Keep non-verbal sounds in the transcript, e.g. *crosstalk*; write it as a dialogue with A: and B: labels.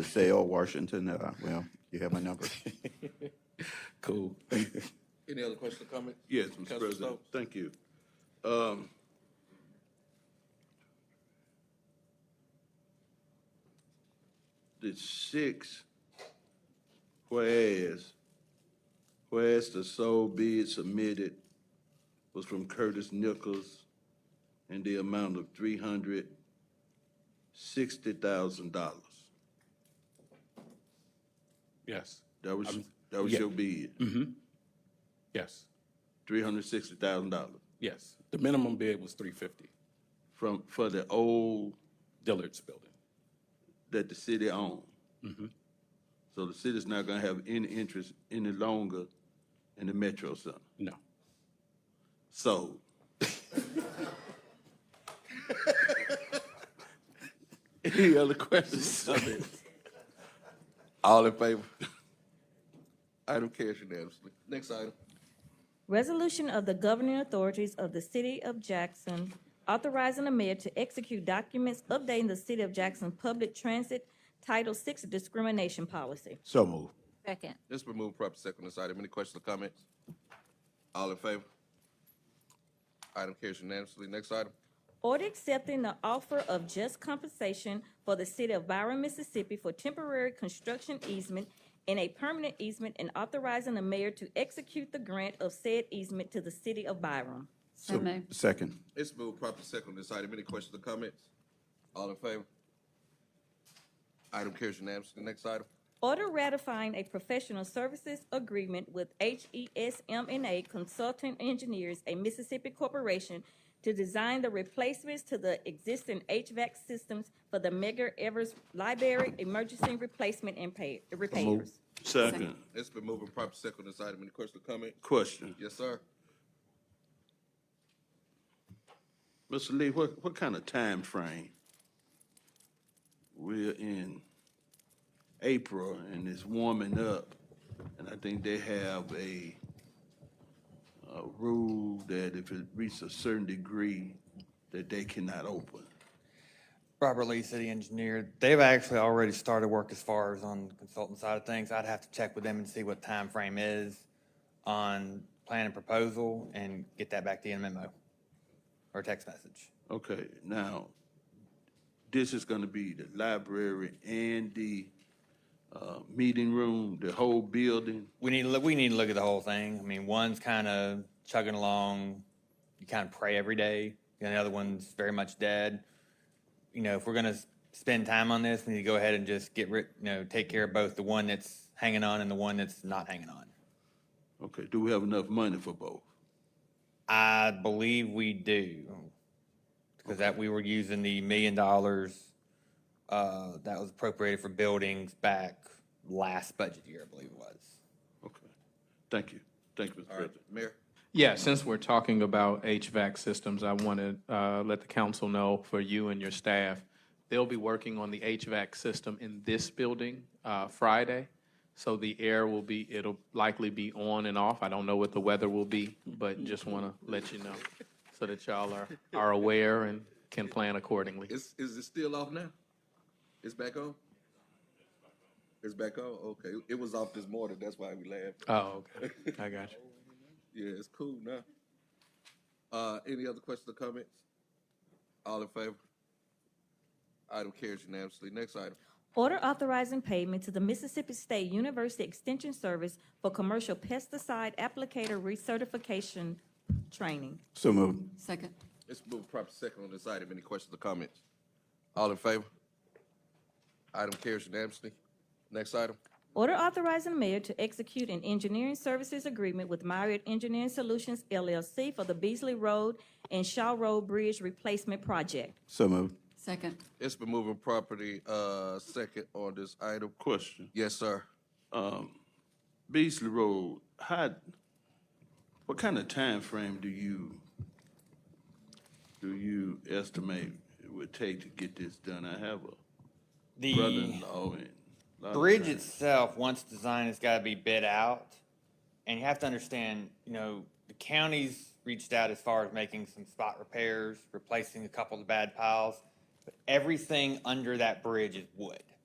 A: DeSalle, Washington, uh, well, you have my number.
B: Cool.
C: Any other questions or comments?
D: Yes,
C: Councilman
D: Mr. President,
C: Stokes?
D: thank you. Um, The six, whereas, whereas the sole bid submitted was from Curtis Nichols in the amount of three hundred sixty thousand dollars.
B: Yes,
D: That was, that was
B: yeah.
D: your bid,
B: yes,
D: three hundred sixty thousand dollars
B: yes. The minimum bid was three fifty,
D: from, for the old
B: Dillard's building.
D: that the city own. So the city's not gonna have any interest any longer in the Metro Center.
B: No.
D: So. Any other questions?
C: All in favor? *laughs* Item carries unanimously. Next item.
E: Resolution of the governing authorities of the City of Jackson authorizing the mayor to execute documents updating the City of Jackson Public Transit Title VI discrimination policy.
A: So move.
F: Second.
C: It's been moved properly second on this item. Any questions or comments? All in favor? Item carries unanimously. Next item.
E: Order accepting the offer of just compensation for the City of Byron, Mississippi for temporary construction easement and a permanent easement and authorizing the mayor to execute the grant of said easement to the City of Byron.
F: So moved.
A: Second.
C: It's been moved properly second on this item. Any questions or comments? All in favor? Item carries unanimously. Next item.
E: Order ratifying a professional services agreement with E HESMNA Consulting Engineers, a Mississippi corporation, to design the replacements to the existing HVAC systems for the Megar Evers Library Emergency Replacement and Pay, Repairs.
D: Second,
C: It's been moved and properly second on this item. Any questions or comments?
D: question.
C: Yes, sir.
D: Mr. Lee, what, what kind of time frame? We're in April and it's warming up, and I think they have a, a rule that if it reaches a certain degree, that they cannot open.
G: Robert Lee, city engineer. They've actually already started work as far as on the consultant side of things. I'd have to check with them and see what time frame is on plan and proposal and get that back to you in a memo or text message.
D: Okay, now, this is gonna be the library and the, uh, meeting room, the whole building.
G: We need, to look- we need to look at the whole thing. I mean, one's kind of chugging along. You kind of pray every day. And the other one's very much dead. You know, if we're going to spend time on this, we need to go ahead and just get rid, you know, take care of both the one that's hanging on and the one that's not hanging on.
D: Okay, do we have enough money for both?
G: I believe we do. Because that, we were using the million dollars, uh, that was appropriated for buildings back last budget year, I believe it was.
D: Okay, thank you, thank you, Mr.
C: All right,
D: President.
C: Mayor.
H: Yeah, since we're talking about HVAC systems, I want to uh, let the council know for you and your staff, they'll be working on the HVAC system in this building uh, Friday. So the air will be, it'll likely be on and off. I don't know what the weather will be, but just want to let you know so that y'all are, are aware and can plan accordingly.
C: Is, is it still off now? It's back on? It's back on? Okay. It was off this morning. That's why we laughed.
H: Oh, okay. I got you.
C: Yeah, it's cool now. Uh, any other questions or comments? All in favor? Item carries unanimously. Next item.
E: Order authorizing payment to the Mississippi State University Extension Service for commercial pesticide applicator recertification training.
A: So moved.
F: Second.
C: It's moved proper second on this item. Any questions or comments? All in favor? Item carries unanimously. Next item.
E: Order authorizing the mayor to execute an engineering services agreement with Myriad Engineering Solutions LLC for the Beasley Road and Shaw Road Bridge Replacement Project.
A: So moved.
F: Second.
C: It's been moving property, uh, second on this item.
D: Question.
C: Yes, sir.
D: um, Beasley Road, how, what kind of time frame do you, do you estimate it would take to get this done? I have a
G: The
D: brother-in-law and. a lot of
G: bridge
D: time.
G: itself, once designed, has got to be bid out. And you have to understand, you know, the counties reached out as far as making some spot repairs, replacing a couple of the bad piles. But everything under that bridge is wood.